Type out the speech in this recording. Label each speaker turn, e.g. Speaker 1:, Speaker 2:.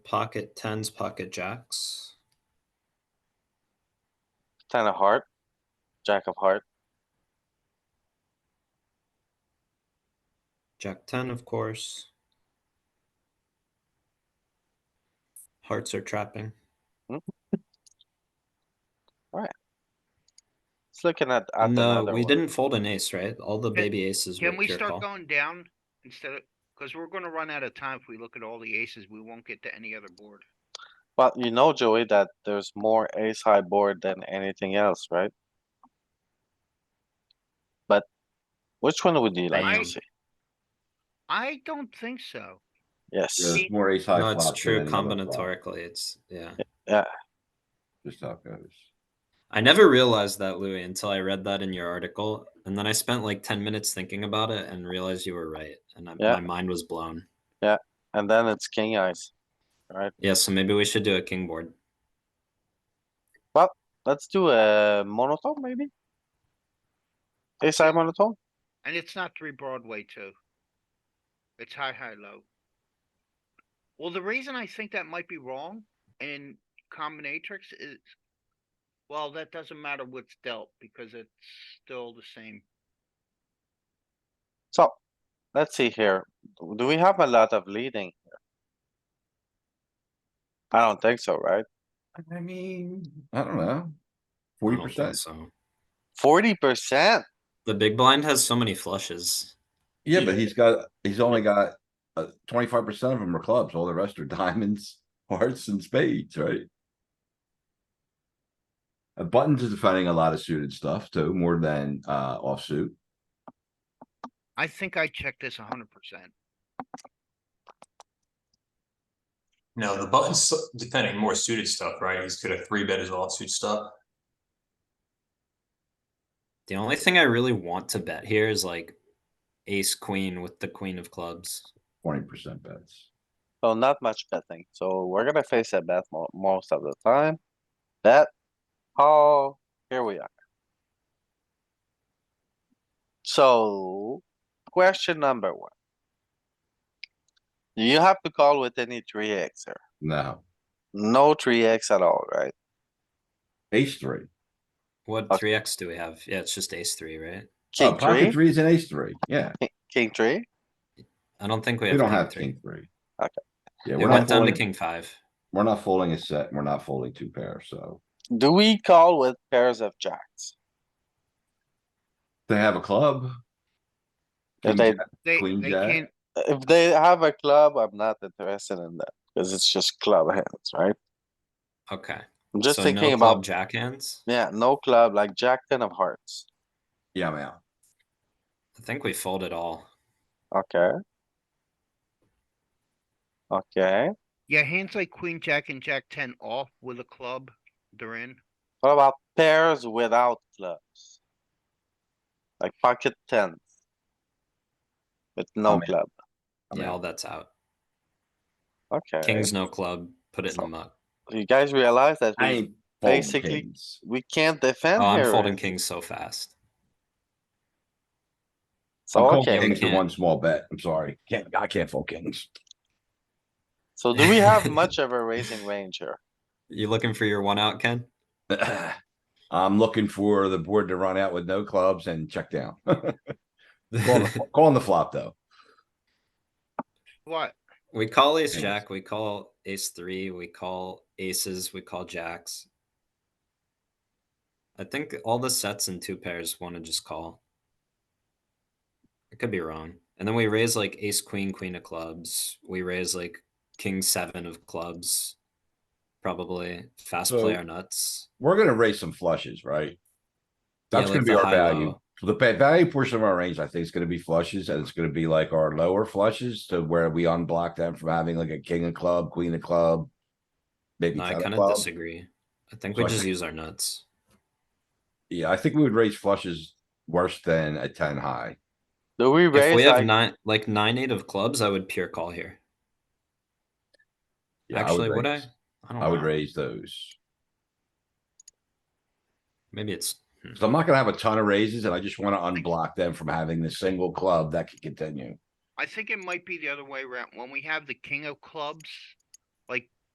Speaker 1: pocket tens, pocket jacks.
Speaker 2: Ten of heart, jack of heart,
Speaker 1: Jack ten, of course. Hearts are trapping.
Speaker 2: it's looking at, at
Speaker 1: no,
Speaker 2: another
Speaker 1: we
Speaker 2: one.
Speaker 1: didn't fold an ace, right? All the
Speaker 3: Can-
Speaker 1: baby aces. were
Speaker 3: Can we
Speaker 1: pure call.
Speaker 3: start going down instead of, cause we're gonna run out of time if we look at all the aces, we won't get to any other board.
Speaker 2: But you know, Joey, that there's more ace high board than anything else, right? But which one would you like
Speaker 3: I-
Speaker 2: to see?
Speaker 3: I don't think so.
Speaker 2: Yes,
Speaker 3: Yeah.
Speaker 4: There's more ace high.
Speaker 1: No, it's
Speaker 4: flop than
Speaker 1: true
Speaker 4: any other flop,
Speaker 1: combinatorically. It's yeah.
Speaker 4: Just how it goes.
Speaker 1: I never realized that, Louis, until I read that in your article, and then I spent like ten minutes thinking about it and realized you were right, and I,
Speaker 2: Yeah.
Speaker 1: my mind was blown.
Speaker 2: and then it's king eyes.
Speaker 1: Yeah, so maybe we should do a king board.
Speaker 2: Let's do a monotone, maybe? Ace high monotone?
Speaker 3: And it's not three Broadway too. It's high, high, low. Well, the reason I think that might be wrong in combinatrix is, well, that doesn't matter what's dealt because it's still the same.
Speaker 2: So, let's see here. Do we have a lot of leading? here? I don't think so, right?
Speaker 4: I mean, I don't know.
Speaker 1: I
Speaker 4: Forty
Speaker 1: don't think
Speaker 4: percent.
Speaker 1: So
Speaker 2: Forty percent?
Speaker 1: the big blind has so many flushes.
Speaker 4: Yeah, but he's got, he's only got, uh, twenty-five percent of them are clubs. All the rest are diamonds, hearts and spades, right? Uh, Buttons is defending a lot of suited stuff too, more than, uh, offsuit.
Speaker 3: I think I checked this hundred percent.
Speaker 5: No, the button's depending more suited stuff, right? He's could have three bet his offsuit stuff.
Speaker 1: The only thing I really want to bet here is like ace queen with the queen of clubs.
Speaker 4: twenty percent bets.
Speaker 2: So not much betting, so we're gonna face a bet mo- most of the time. Bet, oh, here we are. So, question number one. You have to call with any three X here.
Speaker 4: No,
Speaker 2: No three X at all, right?
Speaker 4: ace three.
Speaker 1: What
Speaker 2: Okay.
Speaker 1: three x do we have? Yeah, it's just ace three, right?
Speaker 4: Oh,
Speaker 2: King
Speaker 4: pocket
Speaker 2: three,
Speaker 4: three is an ace three, yeah.
Speaker 2: king three,
Speaker 1: I don't think we have.
Speaker 4: We don't
Speaker 1: king
Speaker 4: have
Speaker 1: three.
Speaker 4: king three.
Speaker 2: Okay.
Speaker 4: Yeah,
Speaker 1: It
Speaker 4: we're
Speaker 1: went
Speaker 4: not
Speaker 1: down to
Speaker 4: folding,
Speaker 1: king five.
Speaker 4: we're not folding a set, we're not folding two pairs, so.
Speaker 2: do we call with pairs of jacks?
Speaker 4: They have a club.
Speaker 2: If
Speaker 4: King
Speaker 2: they-
Speaker 4: jack,
Speaker 3: They,
Speaker 4: Queen
Speaker 3: they
Speaker 4: jack.
Speaker 3: can't,
Speaker 2: If they have a club, I'm not interested in that, cause it's just club hands, right?
Speaker 1: Okay.
Speaker 2: I'm just
Speaker 1: so
Speaker 2: thinking
Speaker 1: no
Speaker 2: about
Speaker 1: club jack hands.
Speaker 2: Yeah, no club, like jack ten of hearts.
Speaker 4: Yeah, I'm out.
Speaker 1: I think we fold it all.
Speaker 2: Okay. Okay,
Speaker 3: yeah, hands like queen, jack and jack ten off with a club, they're in.
Speaker 2: what about pairs without clubs? Like pocket tens. With
Speaker 1: Oh,
Speaker 2: no
Speaker 4: I'm in.
Speaker 2: club,
Speaker 4: I'm
Speaker 1: yeah,
Speaker 4: out.
Speaker 1: all that's out.
Speaker 2: okay.
Speaker 1: Kings no club. Put it in the muck.
Speaker 2: You guys realize that
Speaker 4: I
Speaker 2: we,
Speaker 4: ain't folding
Speaker 2: basically-
Speaker 4: kings.
Speaker 2: we can't
Speaker 1: Oh,
Speaker 2: defend
Speaker 1: I'm
Speaker 2: here.
Speaker 1: folding
Speaker 2: right?
Speaker 1: kings so fast.
Speaker 4: I'm
Speaker 2: So,
Speaker 4: calling
Speaker 2: Oh, okay,
Speaker 4: Kings the
Speaker 1: Can't.
Speaker 4: one small bet, I'm sorry, can't, I can't fold kings.
Speaker 2: so do we have much of a raising range here?
Speaker 1: You looking for your one out, Ken?
Speaker 4: I'm looking for the board to run out with no clubs and check down. Calling the- Calling the flop, though.
Speaker 3: What?
Speaker 1: We call ace
Speaker 4: Kings.
Speaker 1: jack. We call ace three. We call aces. We call jacks. I think all the sets and two pairs want to just call. I could be wrong. And then we raise like ace queen, queen of clubs. We raise like king seven of clubs. Probably fast
Speaker 4: So-
Speaker 1: player nuts.
Speaker 4: We're gonna raise some flushes, right?
Speaker 1: Yeah,
Speaker 4: That's
Speaker 1: like
Speaker 4: gonna be
Speaker 1: the
Speaker 4: our
Speaker 1: high
Speaker 4: value.
Speaker 1: low.
Speaker 4: The ba- value portion of our range, I think, is gonna be flushes, and it's gonna be like our lower flushes to where we unblock them from having like a king of club, queen of club. Maybe
Speaker 1: No, I
Speaker 4: ten
Speaker 1: kind
Speaker 4: of
Speaker 1: of
Speaker 4: club.
Speaker 1: disagree. I think
Speaker 4: So
Speaker 1: we
Speaker 4: I
Speaker 1: just
Speaker 4: think-
Speaker 1: use our nuts.
Speaker 4: Yeah, I think we would raise flushes worse than a ten high.
Speaker 2: Do we
Speaker 1: If we
Speaker 2: raise
Speaker 1: have
Speaker 2: like,
Speaker 1: nine, like nine eight of clubs, I would pure call here.
Speaker 4: Yeah, I
Speaker 1: Actually, would I?
Speaker 4: raise-
Speaker 1: I don't
Speaker 4: I would
Speaker 1: know.
Speaker 4: raise those.
Speaker 1: Maybe it's hmm.
Speaker 4: So I'm not gonna have a ton of raises and I just wanna unblock them from having the single club that could continue.
Speaker 3: I think it might be the other way around. When we have the king of clubs, like